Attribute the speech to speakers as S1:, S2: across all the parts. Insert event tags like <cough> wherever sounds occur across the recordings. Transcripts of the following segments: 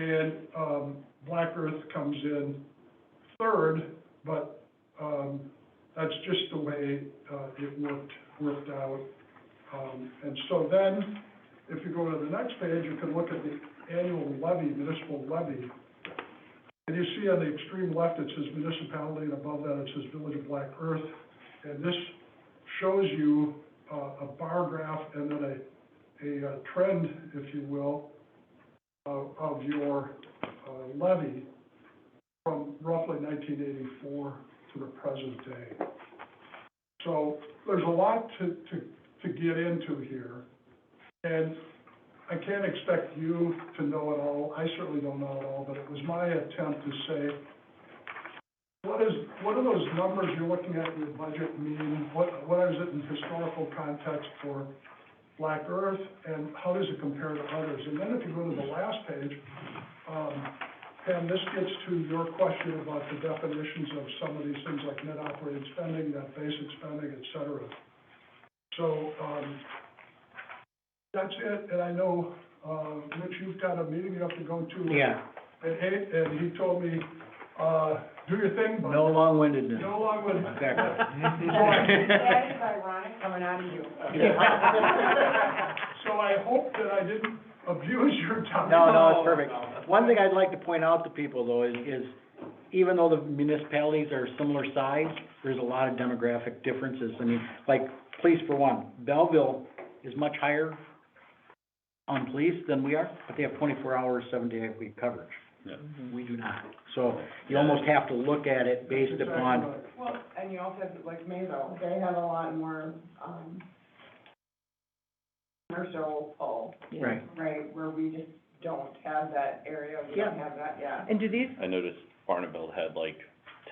S1: And, um, Black Earth comes in third, but, um, that's just the way, uh, it worked, worked out. Um, and so then, if you go to the next page, you can look at the annual levy, municipal levy. And you see on the extreme left, it says municipality, and above that, it says Village of Black Earth. And this shows you, uh, a bar graph and then a, a uh, trend, if you will, of, of your uh, levy from roughly nineteen eighty-four to the present day. So there's a lot to, to, to get into here. And I can't expect you to know it all. I certainly don't know it all, but it was my attempt to say, what is, what do those numbers you're looking at in your budget mean? What, what is it in historical context for Black Earth, and how does it compare to others? And then if you go to the last page, um, Pam, this gets to your question about the definitions of some of these things like net operating spending, net basic spending, et cetera. So, um, that's it, and I know, uh, Rich, you've got a meeting you have to go to.
S2: Yeah,
S1: At eight, and he told me, uh, do your thing, bud.
S2: no long-windedness.
S1: No long with it.
S2: Exactly.
S3: That is ironic coming out of you.
S2: Yeah.
S1: <laughs>
S3: <laughs>
S1: So I hope that I didn't abuse your time.
S2: No, no, it's perfect. One thing I'd like to point out to people though is, is even though the municipalities are similar size, there's a lot of demographic differences. I mean, like, police for one, Belleville is much higher on police than we are, but they have twenty-four hours, seven-day-a-week coverage.
S4: Yeah.
S2: We do not. So you almost have to look at
S1: <laughs>
S2: it based
S1: Exactly
S2: upon,
S1: right.
S3: Well, and you also have, like Mayville, they have a lot more, um, commercial pull,
S2: right,
S3: right, where we just don't have that area, we don't have that, yeah.
S5: And do these,
S4: I noticed Barneville had like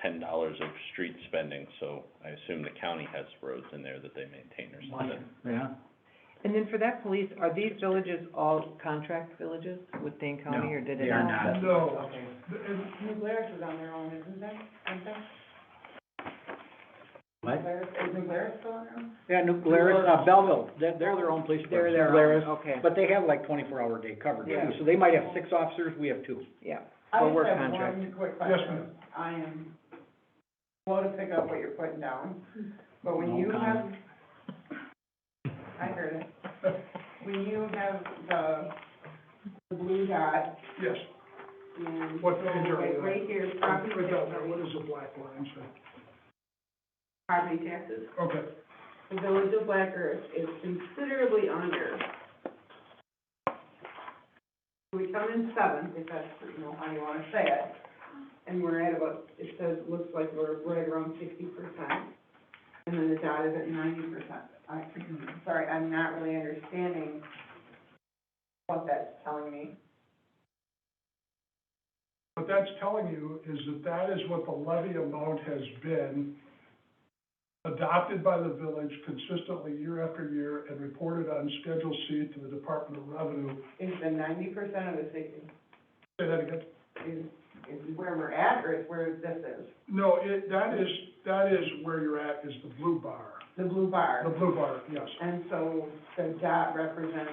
S4: ten dollars of street spending, so I assume the county has roads in there that they maintain or something.
S2: yeah.
S5: and then for that police, are these villages all contract villages with Dane County,
S2: No,
S5: or did it?
S2: they are not.
S1: No.
S5: Okay.
S1: And
S3: Muglaris is on their own, isn't that, isn't that?
S2: What?
S3: Muglaris- Is Muglaris still on their own?
S2: Yeah, New Glarus, uh, Belleville, they're, they're their own police
S5: They're
S2: department.
S5: their
S2: Glarus,
S5: own, okay,
S2: But they have like twenty-four hour day coverage
S3: Yeah.
S2: too, so they might have six officers, we have two.
S5: yeah.
S3: I
S2: Or
S3: just
S2: work
S3: have
S2: contract.
S3: one quick
S1: Yes,
S3: question.
S1: ma'am.
S3: I am slow to pick up what you're putting down, but when
S2: No
S3: you have,
S2: comment.
S3: I heard it. When you have the, the blue dot
S1: Yes,
S3: and.
S1: What page are we
S3: Right-
S1: on?
S3: Right here, property
S1: Right down there,
S3: taxes,
S1: what is the black line say?
S3: property taxes,
S1: Okay,
S3: the village of Black Earth is considerably under. We come in seventh, if that's, you know, how you wanna say it, and we're at about, it says, looks like we're right around sixty percent. And then the dot is at ninety percent. I, <clears throat> sorry, I'm not really understanding what that's telling me.
S1: what that's telling you is that that is what the levy amount has been adopted by the village consistently year after year and reported on Schedule C to the Department of Revenue.
S3: Is the ninety percent of the sixty,
S1: Say that again?
S3: is, is where we're at, or is where this is?
S1: No, it, that is, that is where you're at, is the blue bar.
S3: The blue bar.
S1: The blue bar, yes.
S3: And so the dot represents,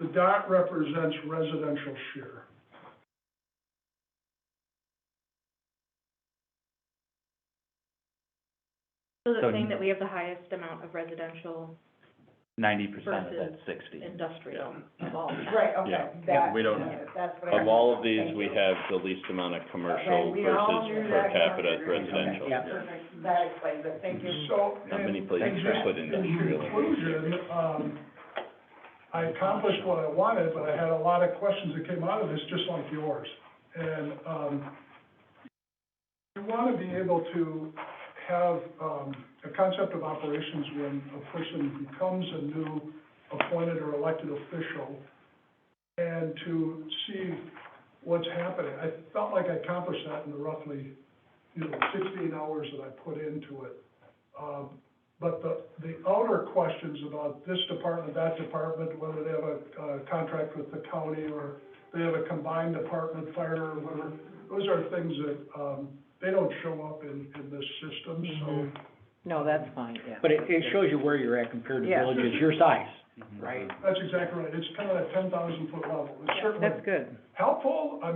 S1: The dot represents residential share.
S6: So
S7: So-
S6: they're saying that we have the highest amount of residential
S7: ninety percent of that
S6: Versus
S7: sixty.
S6: industrial of all.
S3: right, okay,
S4: Yeah.
S3: that,
S4: We don't-
S3: that's what I.
S4: Of all of these,
S3: Thank
S4: we
S3: you.
S4: have the least amount of commercial
S3: Okay, we all
S4: versus
S3: knew
S4: per
S3: that.
S4: capita
S3: Okay,
S4: residential.
S2: yeah.
S3: Perfect, that explains it, thank you.
S1: So.
S4: Not many
S1: and-
S4: places
S1: and
S4: are
S1: just
S4: put industrial.
S1: In conclusion, um, I accomplished what I wanted, but I had a lot of questions that came out of this, just like yours. And, um, you want to be able to have, um, a concept of operations when a person becomes a new appointed or elected official and to see what's happening. I felt like I accomplished that in the roughly, you know, sixteen hours that I put into it. Um, but the, the outer questions about this department, that department, whether they have a, uh contract with the county or they have a combined department, fire or whatever, those are things that, um, they don't show up in, in this system, so.
S5: Mm-hmm.
S2: Mhm.
S5: No, that's fine, yeah.
S2: But it, it shows you where you're at compared to
S5: Yeah.
S2: villages your size, right?
S1: That's exactly right, it's kind of a ten thousand foot level, it's certainly
S5: That's good.
S1: helpful, I